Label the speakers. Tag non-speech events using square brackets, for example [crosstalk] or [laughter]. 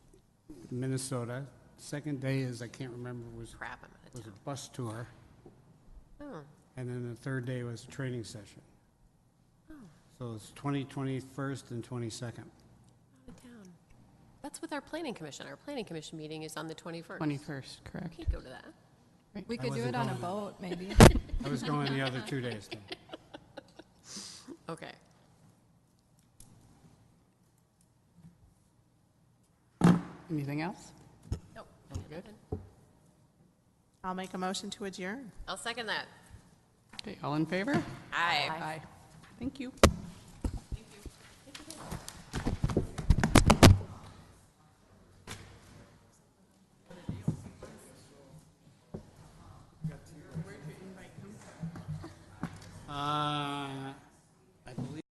Speaker 1: Minnesota. Second day is, I can't remember, was,
Speaker 2: Crap, I'm out of
Speaker 1: was
Speaker 2: town.
Speaker 1: a bus tour.
Speaker 2: Oh,
Speaker 1: And then the third day was a training session.
Speaker 3: Oh.
Speaker 1: So it's 20, 21st, and 22nd.
Speaker 2: out of town. That's with our planning commission. Our planning commission meeting is on the 21st.
Speaker 4: 21st, correct?
Speaker 2: Can't go to that.
Speaker 3: We
Speaker 1: I
Speaker 3: could do it
Speaker 1: wasn't
Speaker 3: on a
Speaker 1: going to-
Speaker 3: boat, maybe.
Speaker 1: I was going the other
Speaker 3: [laughs]
Speaker 1: two days. though.
Speaker 2: Okay.
Speaker 4: Anything else?
Speaker 2: Nope.
Speaker 5: I'll make a motion to adjourn.
Speaker 2: I'll second that.
Speaker 4: Okay, all in favor?
Speaker 2: Aye.
Speaker 4: Aye. Thank you.
Speaker 1: Uh,